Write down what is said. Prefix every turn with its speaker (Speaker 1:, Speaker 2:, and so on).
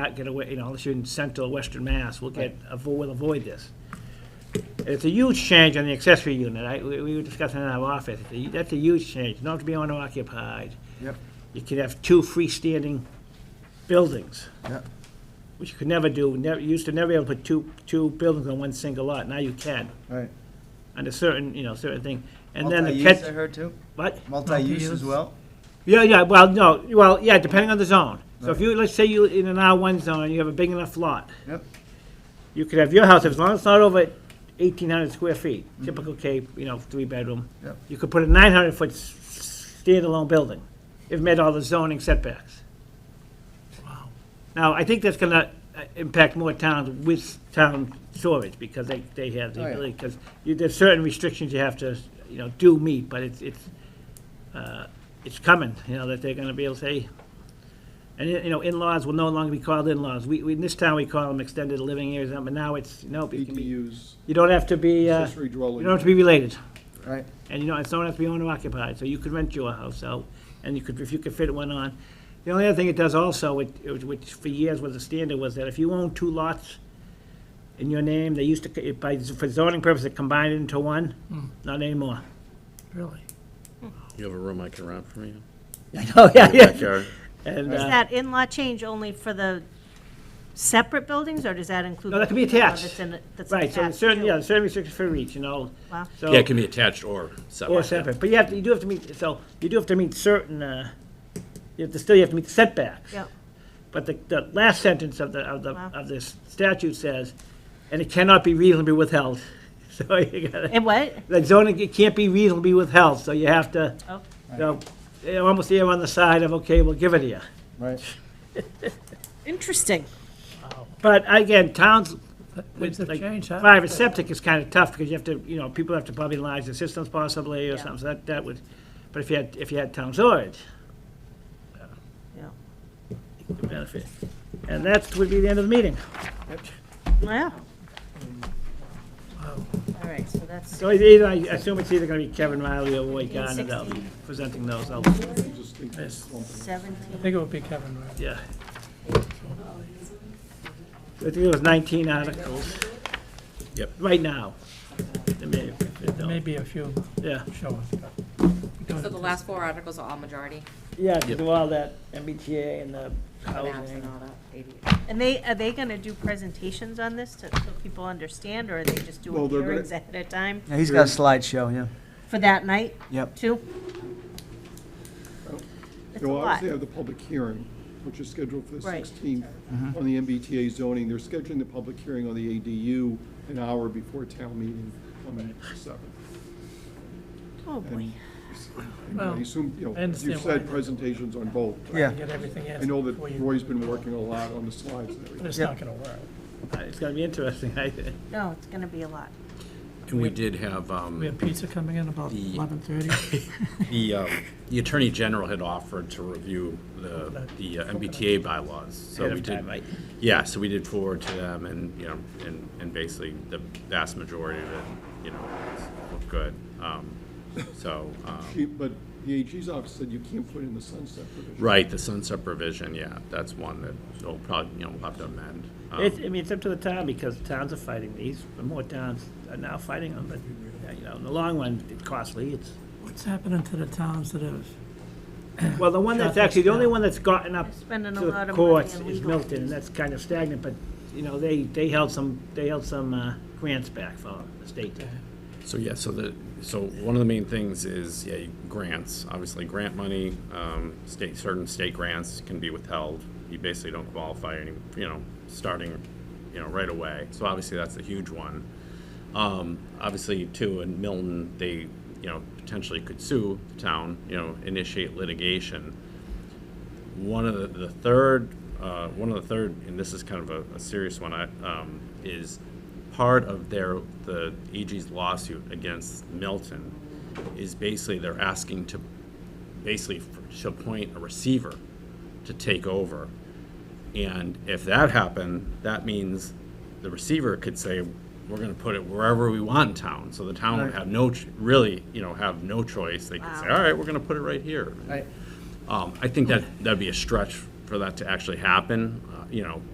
Speaker 1: not get away, you know, unless you're in central western Mass, we'll get, avo- we'll avoid this. It's a huge change on the accessory unit, I, we we were discussing in our office, It's a- that's a huge change, not to be owner occupied.
Speaker 2: Yep.
Speaker 1: You could have two freestanding buildings,
Speaker 2: Yep.
Speaker 1: which you could never do, never, you used to never be able to put two, two buildings on one single lot, now you can,
Speaker 2: Right.
Speaker 1: under certain, you know, certain thing. And then the
Speaker 2: Multi-use, I
Speaker 1: catch,
Speaker 2: heard too?
Speaker 1: what?
Speaker 2: Multi-use as
Speaker 3: Multi-use.
Speaker 2: well?
Speaker 1: Yeah, yeah, well, no, well, yeah, depending on the zone. So if you, let's say you, in an R one zone, and you have a big enough lot.
Speaker 2: Yep.
Speaker 1: You could have your house, as long as it's not over eighteen hundred square feet, typical Cape, you know, three bedroom.
Speaker 2: Yep.
Speaker 1: You could put a nine hundred foot s- s- standalone building, if met all the zoning setbacks. Now, I think that's gonna uh, impact more towns with town storage, because they, they have
Speaker 2: Oh,
Speaker 1: the
Speaker 2: yeah.
Speaker 1: ability, because there's certain restrictions you have to, you know, do meet, but it's, it's, uh, it's coming, you know, that they're gonna be able to say, and, you know, in-laws will no longer be called in-laws. We, we, in this town, we call them extended living areas, but now it's, nope, it can be,
Speaker 4: ADUs,
Speaker 1: you don't have to be, uh,
Speaker 4: accessory
Speaker 1: you
Speaker 4: dwelling.
Speaker 1: don't have to be related.
Speaker 2: Right.
Speaker 1: And you know, it's don't have to be owner occupied, so you could rent your house out, and you could, if you could fit one on. The only other thing it does also, which, which for years was a standard, was that if you own two lots in your name, they used to, by, for zoning purposes, it combined it into one, not anymore.
Speaker 3: Really?
Speaker 5: You have a room I can rent from you?
Speaker 1: Oh, yeah, yeah.
Speaker 5: Backyard?
Speaker 1: And,
Speaker 2: Is
Speaker 1: uh,
Speaker 6: that in-law change only for the separate buildings, or does that include?
Speaker 1: No, that could be
Speaker 6: the in-law
Speaker 1: attached.
Speaker 6: that's in it- that's
Speaker 1: right, so
Speaker 6: attached,
Speaker 1: certain,
Speaker 6: too?
Speaker 1: yeah, certain restrictions for each, you know,
Speaker 6: Wow.
Speaker 1: so.
Speaker 5: Yeah, it can be attached or separate.
Speaker 1: Or separate, but you have, to- you do have to meet, so, you do have to meet certain, uh, you have to, still you have to meet the setbacks.
Speaker 6: Yep.
Speaker 1: But the, the last sentence of the, of the,
Speaker 6: Wow.
Speaker 1: of this statute says, and it cannot be reasonably withheld. So you gotta,
Speaker 6: And what?
Speaker 1: the zoning, it can't be reasonably withheld, so you have to,
Speaker 6: Oh,
Speaker 1: you know, you almost err on the side of, okay, we'll give it to you.
Speaker 2: Right.
Speaker 6: Interesting.
Speaker 1: But again, towns with
Speaker 3: Things have
Speaker 1: like
Speaker 3: changed, huh?
Speaker 1: private septic is kind of tough because you have to, you know, people have to probably line the systems possibly or
Speaker 6: Yeah.
Speaker 1: something, so that, that would, but if you had, if you had town storage,
Speaker 6: Yeah.
Speaker 1: it could benefit. And that would be the end of the meeting.
Speaker 6: Wow. All right, so that's,
Speaker 1: So it's either, I assume it's either gonna be Kevin Riley or Roy Gardner that'll be
Speaker 6: 16.
Speaker 1: presenting those, I'll,
Speaker 4: Just think it's lumping.
Speaker 3: I
Speaker 6: 17,
Speaker 3: think it would be Kevin, right?
Speaker 1: yeah. I think it was nineteen articles.
Speaker 5: Yep.
Speaker 1: Right now. There may- there
Speaker 3: There
Speaker 1: don't-
Speaker 3: may be a few
Speaker 1: Yeah,
Speaker 3: showing. but we don't
Speaker 7: So the last four articles are all majority,
Speaker 1: yeah, to do all that MBTA and the
Speaker 7: maps
Speaker 1: housing.
Speaker 7: and all that, ADU.
Speaker 6: and they, are they gonna do presentations on this to, so people understand, or are they just
Speaker 4: Well,
Speaker 6: doing
Speaker 4: they're gonna-
Speaker 6: hearings ahead of time
Speaker 2: Yeah, he's got a slideshow, yeah.
Speaker 6: for that night,
Speaker 2: Yep.
Speaker 6: too? It's a
Speaker 4: They'll
Speaker 6: lot.
Speaker 4: obviously have the public hearing, which is scheduled for the
Speaker 6: Right.
Speaker 4: 16th
Speaker 3: Mm-hmm.
Speaker 4: on the MBTA zoning. They're scheduling the public hearing on the ADU an hour before town meeting on the 7th.
Speaker 6: Oh, boy.
Speaker 4: And and I
Speaker 3: Well,
Speaker 4: assume, you
Speaker 3: I
Speaker 4: know,
Speaker 3: understand
Speaker 4: you
Speaker 3: why they
Speaker 4: said
Speaker 3: do
Speaker 4: presentations on both.
Speaker 2: Yeah.
Speaker 3: To get everything in.
Speaker 4: I know that
Speaker 3: before you-
Speaker 4: Roy's been working a lot on the slides and
Speaker 3: But
Speaker 4: everything.
Speaker 3: it's
Speaker 2: Yeah.
Speaker 3: not gonna work.
Speaker 1: It's gonna be interesting, I,
Speaker 6: No, it's gonna be a lot.
Speaker 5: And we did have,
Speaker 3: We
Speaker 5: um,
Speaker 3: have pizza coming in about
Speaker 5: The-
Speaker 3: eleven thirty.
Speaker 5: the, um, the Attorney General had offered to review the, the uh, MBTA bylaws, so
Speaker 1: Ahead
Speaker 5: we
Speaker 1: of time,
Speaker 5: did.
Speaker 1: right?
Speaker 5: Yeah, so we did forward to them and, you know, and, and basically the vast majority of it, you know, looked good. Um, So, um,
Speaker 4: She- But the AG's office said you can't put in the sunset provision.
Speaker 5: right, the sunset provision, yeah, that's one that will probably, you know, we'll have to amend. Um,
Speaker 1: It's, I mean, it's up to the town, because towns are fighting these, and more towns are now fighting them, but, yeah, you know, in the long run, it's costly, it's,
Speaker 3: What's happening to the towns that have,
Speaker 1: well, the one that's actually, the only one that's gotten up to
Speaker 6: Spending a lot
Speaker 1: the
Speaker 6: of money
Speaker 1: courts
Speaker 6: on
Speaker 1: is
Speaker 6: legal
Speaker 1: Milton, and
Speaker 6: fees.
Speaker 1: that's kind of stagnant, but, you know, they, they held some, they held some, uh, grants back for the state. did.
Speaker 5: So, yeah, so the, so one of the main things is, yeah, grants, obviously grant money, um, state, certain state grants can be withheld. You basically don't qualify any, you know, starting, you know, right away. So obviously that's a huge one. Um, obviously too, in Milton, they, you know, potentially could sue the town, you know, initiate litigation. One of the, the third, uh, one of the third, and this is kind of a, a serious one, I, um, is part of their, the AG's lawsuit against Milton is basically they're asking to, basically f- to appoint a receiver to take over. And if that happened, that means the receiver could say, we're gonna put it wherever we want in town. So the town would
Speaker 2: Right.
Speaker 5: have no, ch- really, you know, have no choice. They could say,
Speaker 6: Wow.
Speaker 5: all right, we're gonna put it right here.
Speaker 2: Right.
Speaker 5: Um, I think that, that'd be a stretch for that to actually happen, uh, you know,